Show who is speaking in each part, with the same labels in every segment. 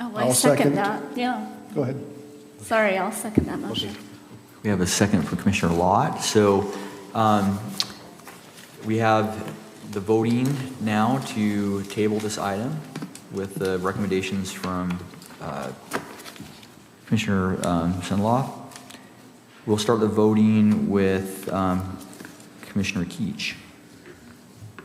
Speaker 1: Oh, I
Speaker 2: I'll second
Speaker 1: second
Speaker 2: it.
Speaker 1: that, yeah.
Speaker 2: Go ahead.
Speaker 1: Sorry, I'll second that motion.
Speaker 3: We have a second from Commissioner Lott. So um, we have the voting now to table this item with the recommendations from uh, Commissioner um, Sunlaw. We'll start the voting with um, Commissioner Keach.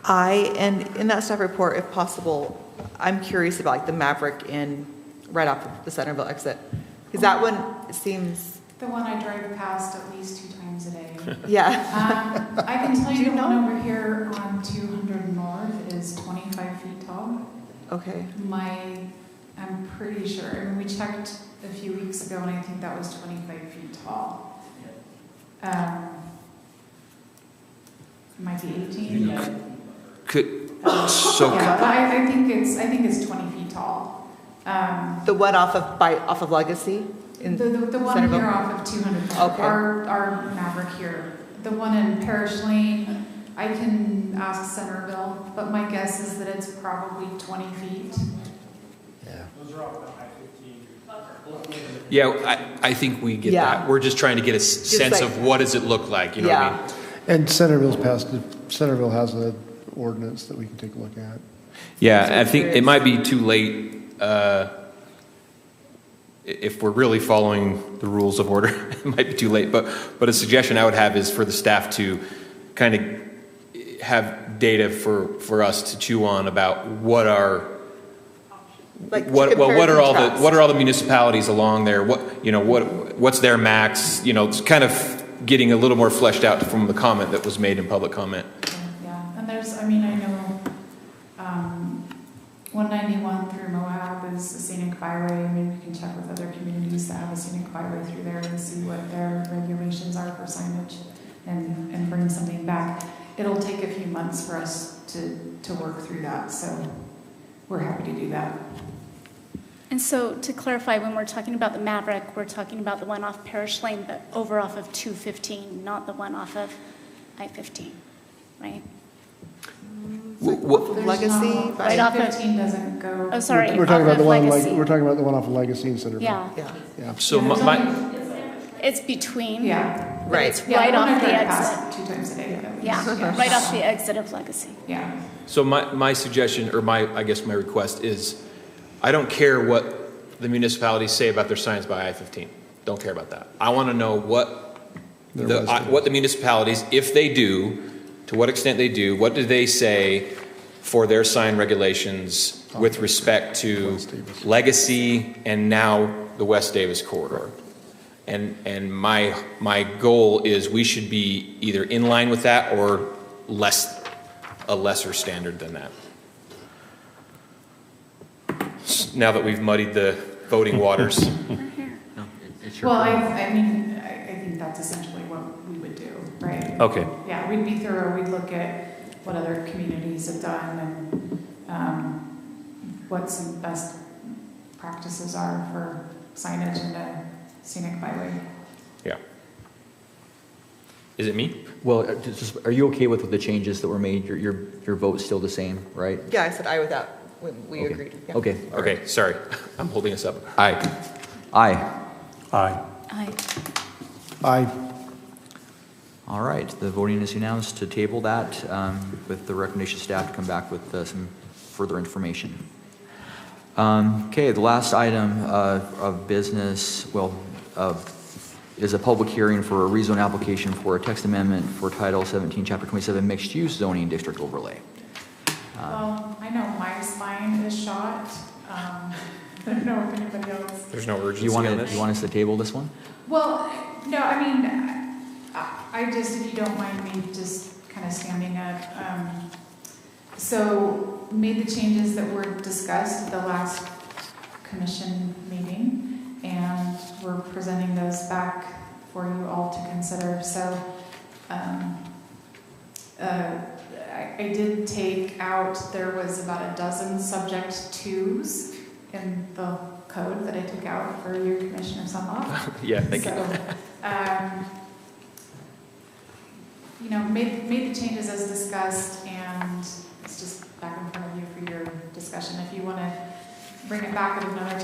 Speaker 4: I, and in that staff report, if possible, I'm curious about like the Maverick in, right off the Centerville exit. Because that one seems,
Speaker 5: The one I drive past at least two times a day. Um,
Speaker 4: yeah,
Speaker 5: I can tell
Speaker 4: Do you
Speaker 5: you the one
Speaker 4: know?
Speaker 5: over here on 200 North is 25 feet tall.
Speaker 4: okay.
Speaker 5: My, I'm pretty sure, I mean, we checked a few weeks ago and I think that was 25 feet tall. Um, It might be 18, but.
Speaker 6: Could,
Speaker 5: um,
Speaker 6: so
Speaker 5: Yeah, but I, I think it's, I think it's 20 feet tall. Um,
Speaker 4: The one off of, by, off of Legacy? in-
Speaker 5: The, the the one
Speaker 4: Centerville?
Speaker 5: here off of 200,
Speaker 4: Okay.
Speaker 5: our, our Maverick here. The one in Parish Lane, I can ask Centerville, but my guess is that it's probably 20 feet.
Speaker 6: yeah, I, I think we get
Speaker 4: Yeah.
Speaker 6: that. We're just trying to get a s- sense
Speaker 4: like-
Speaker 6: of what does it look like, you know what I
Speaker 4: Yeah.
Speaker 6: mean?
Speaker 2: And Centerville's passed, Centerville has an ordinance that we can take a look at.
Speaker 6: Yeah, I think it might be too late, uh, i- if we're really following the rules of order, it might be too late, but, but a suggestion I would have is for the staff to kind of have data for, for us to chew on about what are,
Speaker 4: Like to
Speaker 6: what, well,
Speaker 4: compare
Speaker 6: what
Speaker 4: and
Speaker 6: are all the,
Speaker 4: contrast.
Speaker 6: what are all the municipalities along there? What, you know, what, what's their max? You know, it's kind of getting a little more fleshed out from the comment that was made in public comment.
Speaker 5: Yeah, and there's, I mean, I know, um, 191 through Moab is a scenic byway. I mean, we can check with other communities that have a scenic byway through there and see what their regulations are for signage and, and bring something back. It'll take a few months for us to, to work through that, so we're happy to do that.
Speaker 1: And so to clarify, when we're talking about the Maverick, we're talking about the one off Parish Lane, but over off of 215, not the one off of I-15, right?
Speaker 6: Wh- wh-
Speaker 5: There's
Speaker 4: Legacy,
Speaker 5: not-
Speaker 4: Right
Speaker 1: off of-
Speaker 5: 15 doesn't go.
Speaker 1: Oh, sorry.
Speaker 2: We're talking
Speaker 1: off
Speaker 2: about
Speaker 1: of
Speaker 2: the one, like,
Speaker 1: Legacy.
Speaker 2: we're talking about the one off of Legacy and Centerville.
Speaker 1: Yeah,
Speaker 4: Yeah,
Speaker 2: Yeah.
Speaker 6: So
Speaker 5: Yeah,
Speaker 6: my,
Speaker 5: there's
Speaker 6: my,
Speaker 5: only-
Speaker 1: it's between.
Speaker 5: Yeah.
Speaker 1: but
Speaker 4: Right.
Speaker 1: It's
Speaker 5: Yeah,
Speaker 1: right
Speaker 5: the one I
Speaker 1: off the
Speaker 5: drive
Speaker 1: exit.
Speaker 5: past Two times a day. at least,
Speaker 1: Yeah, right off the exit of Legacy.
Speaker 5: Yeah.
Speaker 6: So my, my suggestion, or my, I guess my request is, I don't care what the municipalities say about their signs by I-15. Don't care about that. I want to know what,
Speaker 2: Their
Speaker 6: the I-
Speaker 2: residents.
Speaker 6: what the municipalities, if they do, to what extent they do, what do they say for their sign regulations with respect to
Speaker 2: West Davis.
Speaker 6: legacy and now the West Davis corridor? And, and my, my goal is we should be either in line with that or less, a lesser standard than that. Now that we've muddied the voting waters.
Speaker 3: No, it- it's your
Speaker 5: Well, I,
Speaker 3: call.
Speaker 5: I mean, I, I think that's essentially what we would do, right?
Speaker 6: Okay.
Speaker 5: Yeah, we'd be thorough, we'd look at what other communities have done and, um, what some best practices are for signage in a scenic byway.
Speaker 6: Yeah. Is it me?
Speaker 3: Well, uh, just- are you okay with the changes that were made? Your, your your vote's still the same, right?
Speaker 4: yeah, I said I without, when we
Speaker 3: Okay.
Speaker 4: agreed. yeah.
Speaker 3: Okay,
Speaker 6: Okay, sorry. I'm holding us up. Aye.
Speaker 3: aye.
Speaker 2: Aye.
Speaker 1: I
Speaker 2: Aye.
Speaker 3: All right, the voting is announced to table that um, with the recommendation staff to come back with uh, some further information. Um, Okay, the last item uh, of business, well, of- is a public hearing for a rezone application for a text amendment for Title 17, Chapter 27 Mixed Use Zoning District Overlay.
Speaker 5: Well, I know my spine is shot, um, I don't know if anybody else
Speaker 6: There's no
Speaker 3: Do
Speaker 6: urgency
Speaker 3: you
Speaker 6: on
Speaker 3: want to,
Speaker 6: this?
Speaker 3: you want us to table this one?
Speaker 5: Well, no, I mean, I, I just, if you don't mind me just kind of standing up. um, So made the changes that were discussed at the last commission meeting, and we're presenting those back for you all to consider. So um, uh, I I did take out, there was about a dozen subject twos in the code that I took out for your commissioner Sunlaw.
Speaker 6: Yeah, thank you.
Speaker 5: So, um, You know, made, made the changes as discussed, and it's just back in front of you for your discussion. If you want to bring it back at another